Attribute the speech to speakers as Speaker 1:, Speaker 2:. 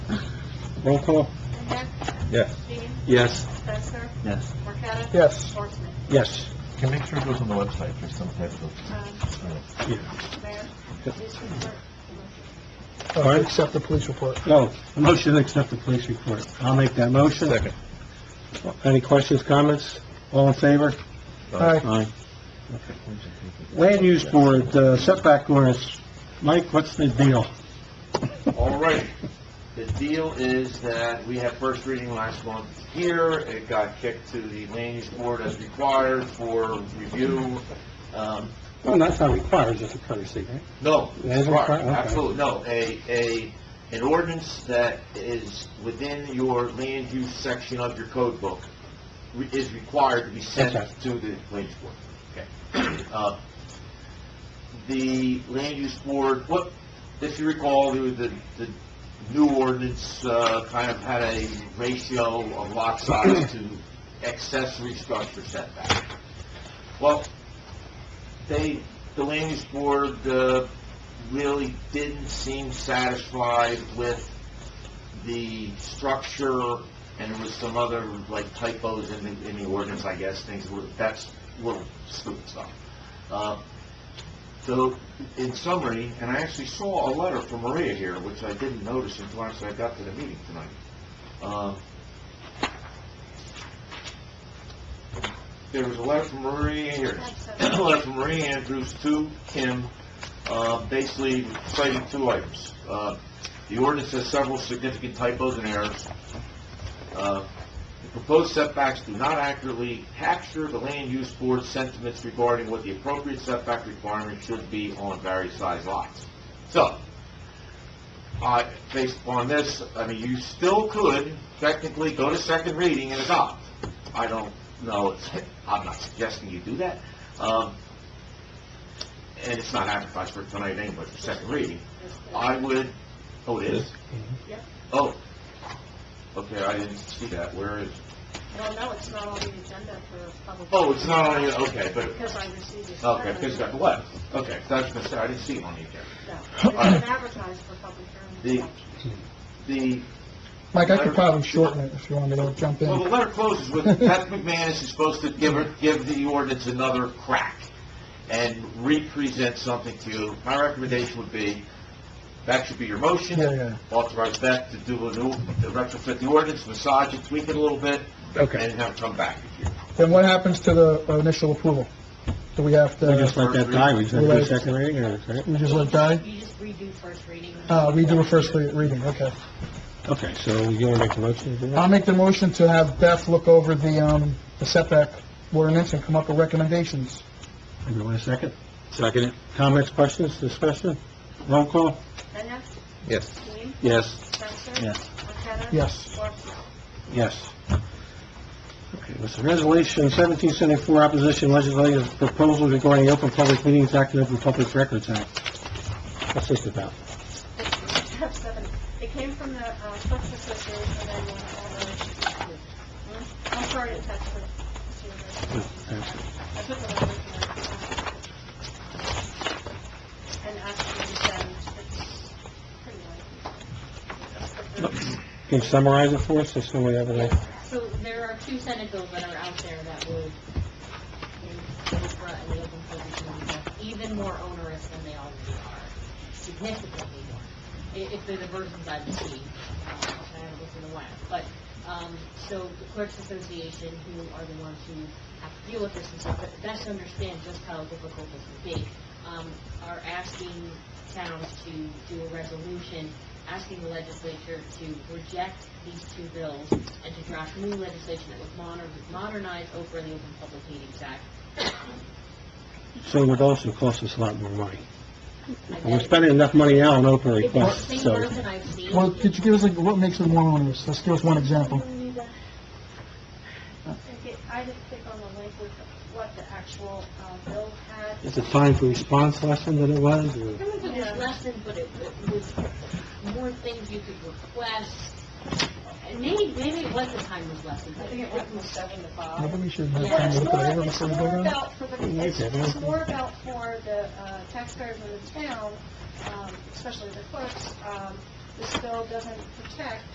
Speaker 1: Roll call?
Speaker 2: Egan?
Speaker 1: Yes.
Speaker 2: Dean?
Speaker 1: Yes.
Speaker 2: Spencer?
Speaker 3: Yes.
Speaker 2: Marqueta?
Speaker 1: Yes.
Speaker 2: Horstman?
Speaker 1: Yes.
Speaker 3: Can make sure it goes on the website for some type of,
Speaker 2: Um, Mayor?
Speaker 1: Yes.
Speaker 2: Police report?
Speaker 1: All right.
Speaker 4: Uh, Accept the police report.
Speaker 1: Oh, motion to accept the police report. I'll make that motion.
Speaker 3: Second.
Speaker 1: Any questions, comments? All in favor?
Speaker 3: uh,
Speaker 4: Aye.
Speaker 1: Aye. Land use board uh, setback ordinance. Mike, what's the deal?
Speaker 5: All right. The deal is that we had first reading last month here. It got kicked to the land use board as required for review. Um,
Speaker 1: Well, that's not required, it's a courtesy, right?
Speaker 5: No,
Speaker 1: It isn't
Speaker 5: right,
Speaker 1: required? Okay.
Speaker 5: absolutely, no. A, a, an ordinance that is within your land use section of your code book re- is required to be sent
Speaker 1: Okay.
Speaker 5: to the land use board. Okay. Uh, The land use board, what, if you recall, the, the, the new ordinance, uh, kind of had a ratio of lot size to accessory structure setback. Well, they, the land use board, uh, really didn't seem satisfied with the structure, and there was some other, like typos in the, in the ordinance, I guess, things, were- that's little stupid stuff. Uh, So, in summary, and I actually saw a letter from Maria here, which I didn't notice until after I got to the meeting tonight. Uh, There was a letter from Maria here, a letter from Maria Andrews to Kim, uh, basically citing two items. Uh, The ordinance has several significant typos and errors. Uh, The proposed setbacks do not accurately capture the land use board's sentiments regarding what the appropriate setback requirement should be on various size lots. So, I- based upon this, I mean, you still could technically go to second reading and adopt. I don't know, it's- I'm not suggesting you do that. Um, and it's not advertised for tonight anyway, for second reading, I would, oh, it is?
Speaker 2: Yeah.
Speaker 5: Oh, okay, I didn't see that, where is,
Speaker 2: Well, no, it's not on the agenda for public...
Speaker 5: oh, it's not on, your- okay, but,
Speaker 2: Because I received it.
Speaker 5: okay, because that, what? Okay, that's, that's- I didn't see it on the agenda.
Speaker 2: No, it's been advertised for public hearing.
Speaker 5: The,
Speaker 4: Mike, I could probably shorten it if you want me to jump
Speaker 5: well, the
Speaker 4: in.
Speaker 5: letter closes with, Beth McManus is supposed to give, her- give the ordinance another crack and re-present something to you. My recommendation would be, that should be your motion.
Speaker 4: Yeah, yeah.
Speaker 5: authorize Beth to do a new, to retrofit the ordinance, massage it, tweak it a little bit, and
Speaker 1: Okay.
Speaker 5: have it come back.
Speaker 4: Then what happens to the initial approval? Do we have
Speaker 1: We just
Speaker 4: to,
Speaker 1: let that die, we just do second reading, or, right?
Speaker 4: we just let it die?
Speaker 2: You just redo first reading.
Speaker 4: Uh, we do a first re- reading, okay.
Speaker 1: Okay, so you want to make the motion? to do
Speaker 4: I'll
Speaker 1: that?
Speaker 4: make the motion to have Beth look over the, um, the setback ordinance and come up with recommendations. Uh-huh.
Speaker 1: You want a second? Second. Comments, questions, discussion? Roll call?
Speaker 2: Kenya?
Speaker 3: Yes.
Speaker 2: Dean?
Speaker 1: Yes.
Speaker 2: Spencer?
Speaker 1: Yes.
Speaker 2: Marqueta?
Speaker 4: Yes.
Speaker 2: Horstman?
Speaker 1: Yes. Okay, this is Resolution 1774, opposition legislative proposal regarding Open Public Meetings Act and Open Public Records Act. What's this about?
Speaker 2: Tab seven. It came from the uh, Clerks Association and then uh, uh, I'm sorry to touch the... I put the letter in there. And actually, um, it's pretty lengthy.
Speaker 1: Can you summarize it for us, just so we have a...
Speaker 6: So there are two Senate bills that are out there that would make Oprah and the open public meetings act even more onerous than they already are, significantly more, i- if they're the versions I've seen. uh, I haven't looked in a while, but, um, so the Clerks Association, who are the ones who have to deal with this and stuff, but best understand just how difficult this would be, um, are asking towns to do a resolution asking the legislature to reject these two bills and to draft new legislation that would moder- modernize Oprah and the Open Public Meetings Act. Um,
Speaker 1: So it would also cost us a lot more money.
Speaker 6: I
Speaker 1: We're
Speaker 6: bet
Speaker 1: spending enough money now on open
Speaker 6: It's the
Speaker 1: requests,
Speaker 6: same
Speaker 1: so...
Speaker 6: version I've seen.
Speaker 4: Well, could you give us, like, what makes it more onerous? Let's give us one example.
Speaker 2: I get- I didn't pick on the language of what the actual uh, bill had.
Speaker 1: Is it time for response lesson that it was, or...
Speaker 6: I don't know if it was lesson, but it wa- was more things you could request. And maybe, maybe it was the time was lessened.
Speaker 2: I think it went from seven to five.
Speaker 4: Maybe we should have
Speaker 6: Yeah,
Speaker 4: time
Speaker 2: It's
Speaker 4: to look
Speaker 2: more,
Speaker 4: it over
Speaker 2: it's
Speaker 4: before we
Speaker 2: more
Speaker 4: vote on it?
Speaker 2: about for the, it's, it's more about for the uh, taxpayers in the town, um, especially the clerks. Um, this bill doesn't protect